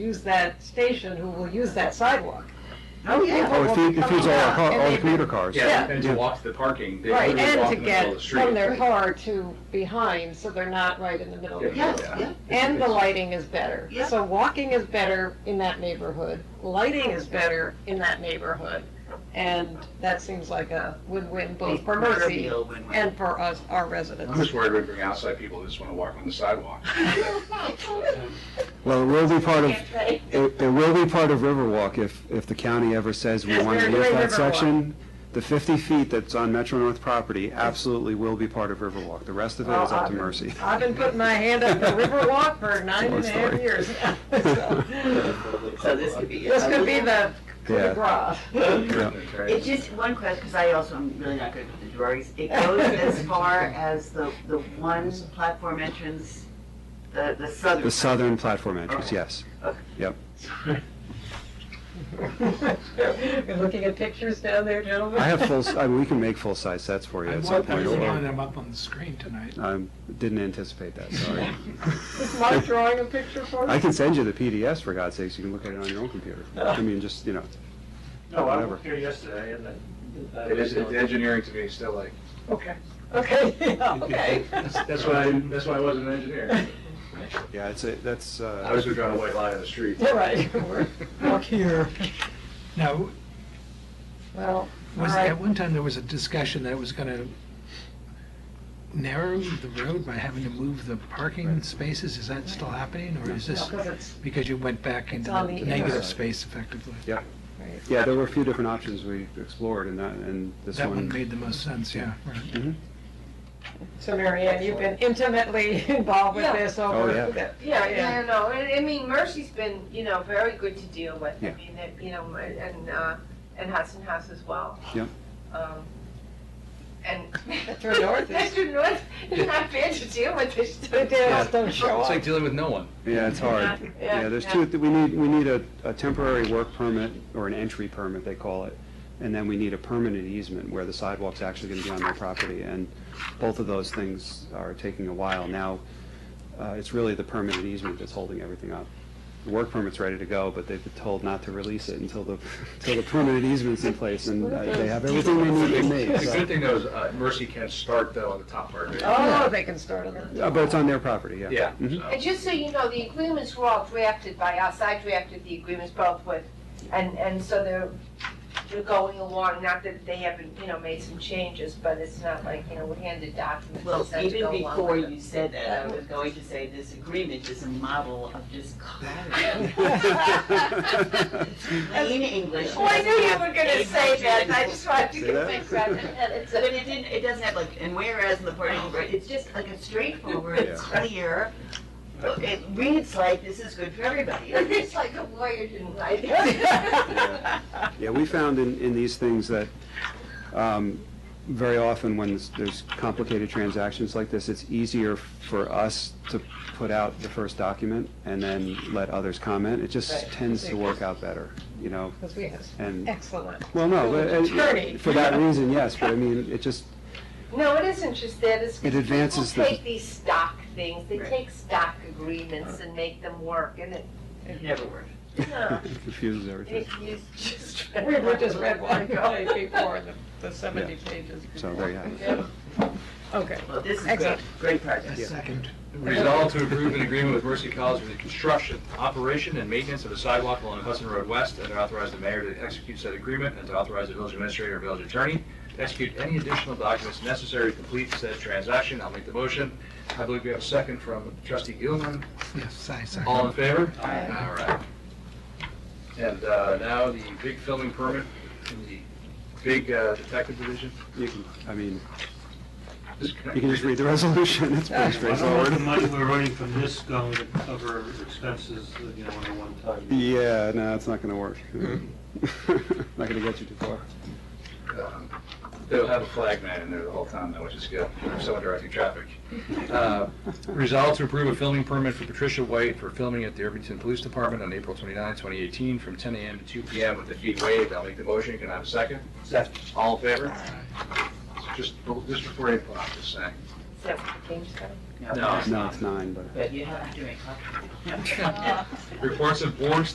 use that station, who will use that sidewalk. Oh, yeah. People Oh, it will feeds, be it feeds coming all our up, car, and all they- the commuter cars. Yeah. Yeah, and to walk to the parking, they Right, literally and walk to in the middle of get the street. from their car to behind, so they're not right in the middle of the Yes, road. yeah. And the lighting is better. Yeah. So walking is better in that neighborhood, lighting is better in that neighborhood. And that seems like a win-win both for Mercy Proverbial win-win. and for us, our I'm residents. just worried we bring outside people who just want to walk on the sidewalk. Well, it will be part of, it, it will be part of Riverwalk if, if the county ever says we Yes, want to we're use doing that Riverwalk. section. The fifty feet that's on Metro North property absolutely will be part of Riverwalk. The rest of it is up to Mercy. I've been putting my hand up for Riverwalk for nine and a half story. years. So, So this could be. This could be the, the Yeah. gras. It's just one question, because I also am really not good with the drawings. It goes as far as the, the one platform entrance, the, the southern. The southern platform entrance, yes. You're looking at pictures down there, gentlemen? I have full, s- I mean, we can make full size sets for you I at some want point. one of although them up on the screen tonight. I didn't anticipate that, sorry. Is Mike drawing a picture for I us? can send you the PDFs, for God's sakes, you can look at it on your own computer. I mean, just, you know, No, I Whatever. was here yesterday and I. It is, the engineering to me is still like, Okay, okay, yeah, okay. that's why, I that's why I wasn't an engineer. yeah, it's, a- that's, uh. I was going to draw a white line on the street. All right, we're, we're here. Now, Well, all was, at right. one time, there was a discussion that it was gonna narrow the road by having to move the parking spaces. Is that still happening, or is this, Because it's, because you went back into on the negative inside. space effectively? Yeah. Yeah, there were a few different options we explored, and that, and this That one one, made the most sense, yeah. right. so Mary Ann, you've been intimately involved with Yeah. this Oh, over. yeah. the- Yeah, yeah, no, I I mean, Mercy's been, you know, very good to deal with. I Yeah. mean, it- you know, and, uh, and Hudson House as well. Yeah. Um, And. Metro North is- Metro North is not bad to deal with this. But they just don't show up. dealing with no one. yeah, it's hard. Yeah, Yeah, there's yeah. two, we need, we need a, a temporary work permit, or an entry permit, they call it, and then we need a permanent easement where the sidewalk's actually gonna be on their property, and both of those things are taking a while. Now, uh, it's really the permanent easement that's holding everything up. The work permit's ready to go, but they've been told not to release it until the, until the permanent easement's in place, and uh, they have everything they need to make. The so- good thing though is uh, Mercy can start though on the top part of it. Oh, they can start on that. Uh, But it's on their property, yeah. Yeah. Mhm. so. And just so you know, the agreements were all drafted by us. I drafted the agreements both with, and, and so they're, they're going along, not that they haven't, you know, made some changes, but it's not like, you know, we handed documents. Well, and said to even go along before with it. you said that, I was going to say this agreement is a model of just clarity. Plain English. Well, Oh, I knew you were gonna say that, I just wanted See to get that? fixed on it. But it didn't, it doesn't have like, and whereas in the part, it's just like a straightforward, Yeah. clear, it reads like this is good for everybody. It's like a lawyer didn't like Yeah, we found in, in these things that um, very often when there's- there's complicated transactions like this, it's easier for us to put out the first document and then let others comment. It just Right. tends to work out better, you know? Because we have And, excellent. well, no, but, Attorney. uh, for that reason, yes, but I mean, it just, No, it isn't just that, it's. It advances People the- take these stock things, they Right. take stock agreements and make them work, and it, It never worked. you know, it confuses everything. it is just. We were just read one Go. before, the- the 70 pages. So there you have it. Yeah. Okay. Well, this is great, Excellent. great project. A second. Resolved to approve an agreement with Mercy College for the construction, operation, and maintenance of a sidewalk along Hudson Road West, and authorize the mayor to execute said agreement, and to authorize the village administrator or village attorney to execute any additional documents necessary to complete said transaction. I'll make the motion. I believe we have a second from trustee Gilman. Yes, I second. All in favor? All right. And uh, now the big filming permit in the big uh, detective division. You can, I mean, you can just read the resolution, it's pretty I don't know if the straightforward. money we're running from this going to cover expenses, you know, on a one-time. Yeah, no, it's not gonna work. Not gonna get you too far. Um, They'll have a flag man in there the whole time, though, which is good, for someone directing traffic. Uh, Resolved to approve a filming permit for Patricia White for filming at the Irvington Police Department on April 29, 2018, from 10 a.m. to 2 p.m. with the heat wave. I'll make the motion. Can I have a second? Second. All in favor? Just, just before you, I'm just saying. Is that what the game's called? No. No, it's nine, but. But you have to make copies. Reports of boards,